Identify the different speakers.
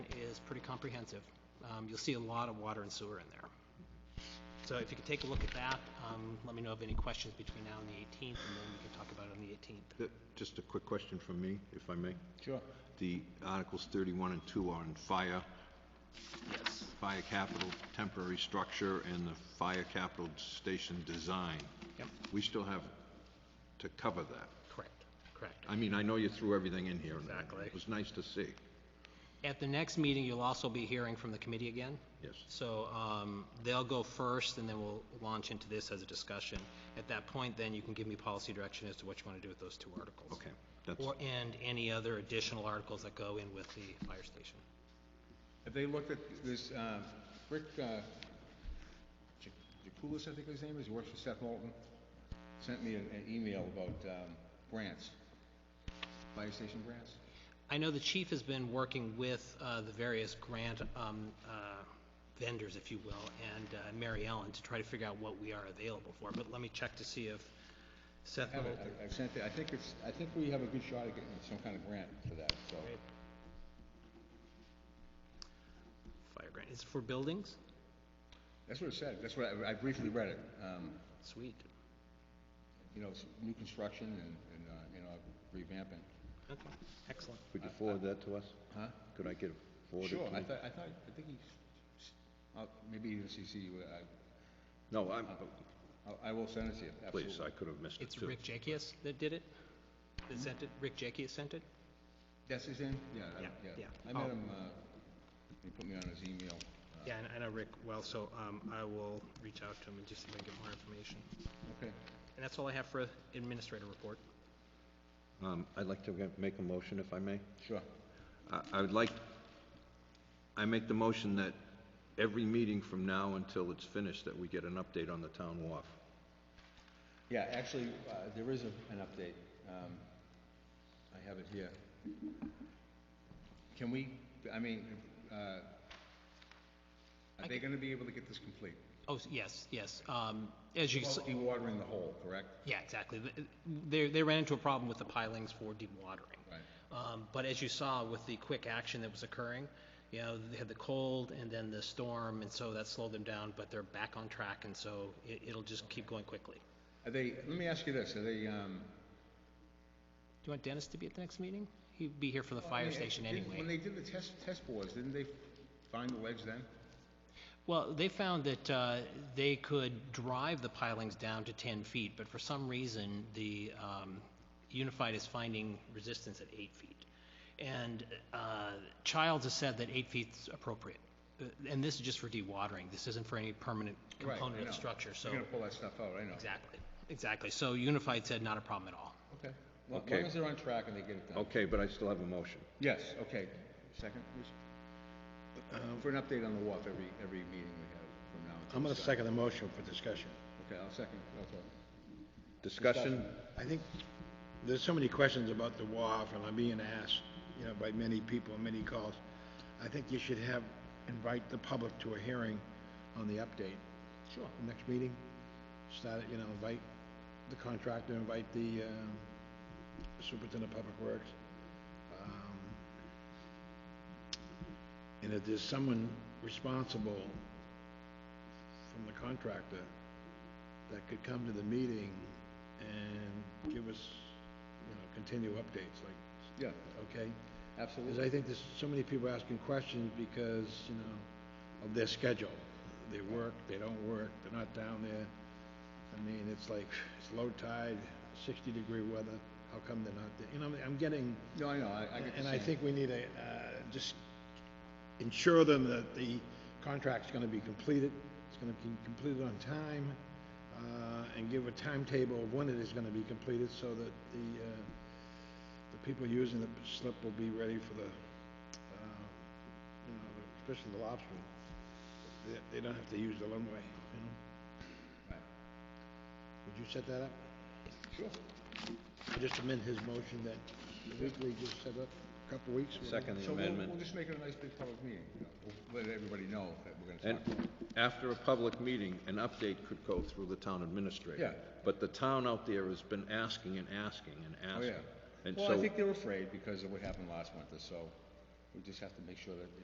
Speaker 1: pretty comprehensive. Um, You'll see a lot of water and sewer in there. So if you could take a look at that, um, let me know of any questions between now and the 18th, and then we can talk about it on the 18th.
Speaker 2: Th- Just a quick question from me, if I may.
Speaker 3: Sure.
Speaker 2: The Articles 31 and 2 are on fire,
Speaker 1: Yes.
Speaker 2: fire capital temporary structure, and the fire capital station design.
Speaker 1: Yep,
Speaker 2: We still have to cover that.
Speaker 1: correct, correct.
Speaker 2: I mean, I know you threw everything in here. and
Speaker 1: Exactly.
Speaker 2: It was nice to see.
Speaker 1: At the next meeting, you'll also be hearing from the committee again.
Speaker 2: Yes.
Speaker 1: So um, they'll go first, and then we'll launch into this as a discussion. At that point, then you can give me policy direction as to what you want to do with those two articles.
Speaker 2: Okay, that's,
Speaker 1: Or, and any other additional articles that go in with the fire station.
Speaker 3: Have they looked at this, uh, Rick, uh, Ja- Jakulis, I think his name is, he works for Seth Moulton, sent me an an email about um, grants, fire station grants.
Speaker 1: I know the chief has been working with uh, the various grant um, uh, vendors, if you will, and uh, Mary Ellen to try to figure out what we are available for, but let me check to see if Seth
Speaker 3: I have it,
Speaker 1: Middleton-
Speaker 3: I- I've sent it, I think it's, I think we have a good shot at getting some kind of grant for that, so.
Speaker 1: Great. Fire grant, is it for buildings?
Speaker 3: That's what it said, that's what, I- I briefly read it, um,
Speaker 1: Sweet,
Speaker 3: you know, s- new construction and, and, uh, you know, revamping.
Speaker 1: okay, excellent.
Speaker 2: could you forward that to us?
Speaker 3: Huh?
Speaker 2: Could I get it forwarded
Speaker 3: Sure,
Speaker 2: to
Speaker 3: I
Speaker 2: me?
Speaker 3: thought, I thought, I think he, s- uh, maybe he didn't CC you, uh, I,
Speaker 2: No, Oh, I'm,
Speaker 3: I'll- I will send it to you, absolutely.
Speaker 2: please, I could have missed it
Speaker 1: It's
Speaker 2: too.
Speaker 1: Rick Jakias that did it? That sent it, Rick Jakias sent it?
Speaker 3: That's his name? Yeah, I-
Speaker 1: Yeah,
Speaker 3: yeah.
Speaker 1: yeah.
Speaker 3: I
Speaker 1: Oh.
Speaker 3: met him, uh, he put me on his email. Uh,
Speaker 1: Yeah, I- I know Rick well, so um, I will reach out to him and just see if I can get more information.
Speaker 3: Okay.
Speaker 1: And that's all I have for administrator report.
Speaker 2: Um, I'd like to make a motion, if I may.
Speaker 3: Sure.
Speaker 2: I- I would like, I make the motion that every meeting from now until it's finished, that we get an update on the town wharf.
Speaker 3: Yeah, actually, uh, there is a- an update. Um, I have it here. Can we, I mean, uh, are they gonna be able to get this complete?
Speaker 1: Oh, s- yes, yes. Um, As you, s-
Speaker 3: Well, Dewatering the hole, correct?
Speaker 1: yeah, exactly. Th- They, they ran into a problem with the pilings for dewatering.
Speaker 3: Right.
Speaker 1: Um, But as you saw with the quick action that was occurring, you know, they had the cold and then the storm, and so that slowed them down, but they're back on track, and so it, it'll just keep going quickly. Do
Speaker 3: Are they, let me ask you this, are they, um...
Speaker 1: you want Dennis to be at the next meeting? He'd be here for the
Speaker 3: I
Speaker 1: fire
Speaker 3: mean,
Speaker 1: station
Speaker 3: didn't- When
Speaker 1: anyway.
Speaker 3: they did the test, test bores, didn't they find the ledge then?
Speaker 1: Well, they found that uh, they could drive the pilings down to 10 feet, but for some reason, the um, Unified is finding resistance at 8 feet. And uh, Childs has said that 8 feet's appropriate. Uh, And this is just for dewatering. This isn't for any permanent
Speaker 3: Right, I
Speaker 1: component of
Speaker 3: know.
Speaker 1: the structure, so.
Speaker 3: You're gonna pull that stuff out, I know.
Speaker 1: Exactly, exactly. So Unified said not a problem at all.
Speaker 3: Okay. Well, As
Speaker 2: Okay.
Speaker 3: long as they're on track and they get it done.
Speaker 2: Okay, but I still have a motion.
Speaker 3: Yes, okay. Second, please. Uh, For an update on the WAF every, every meeting we have from now until...
Speaker 4: I'm going to
Speaker 3: Saturday.
Speaker 4: second the motion for discussion.
Speaker 3: Okay, I'll second, okay.
Speaker 2: Discussion?
Speaker 4: I think there's so many questions about the WAF, and I'm being asked, you know, by many people, many calls. I think you should have, invite the public to a hearing on the update. Sure. Next meeting, start, it, you know, invite the contractor, invite the uh, superintendent of public works. Um, And if there's someone responsible from the contractor that could come to the meeting and give us, you know, continue updates, like,
Speaker 3: Yeah,
Speaker 4: okay? Because
Speaker 3: absolutely.
Speaker 4: I think there's so many people asking questions because, you know, of their schedule. They work, they don't work, they're not down there. I mean, it's like, it's low tide, sixty degree weather, how come they're not there? You know, I'm getting,
Speaker 3: No, I know, I, I get the
Speaker 4: and I
Speaker 3: same.
Speaker 4: think we need to uh, just ensure them that the contract's going to be completed, it's going to be completed on time, uh, and give a timetable of when it is going to be completed so that the, uh, the people using the slip will be ready for the, uh, you know, especially the lobster. They- They don't have to use the runway, you know?
Speaker 3: Right.
Speaker 4: Would you set that up?
Speaker 3: Sure.
Speaker 4: Just amend his motion that weekly, just set up a couple weeks. whatever.
Speaker 2: Second the
Speaker 3: So we'll, we'll
Speaker 2: amendment.
Speaker 3: just make it a nice big public meeting, you know, we'll let everybody know that we're gonna
Speaker 2: And
Speaker 3: talk. about it.
Speaker 2: after a public meeting, an update could go through the town administrator.
Speaker 3: Yeah.
Speaker 2: But the town out there has been asking and asking and
Speaker 3: Oh,
Speaker 2: asking.
Speaker 3: yeah.
Speaker 2: And
Speaker 3: Well, I
Speaker 2: so-
Speaker 3: think they're afraid because of what happened last winter, so we just have to make sure that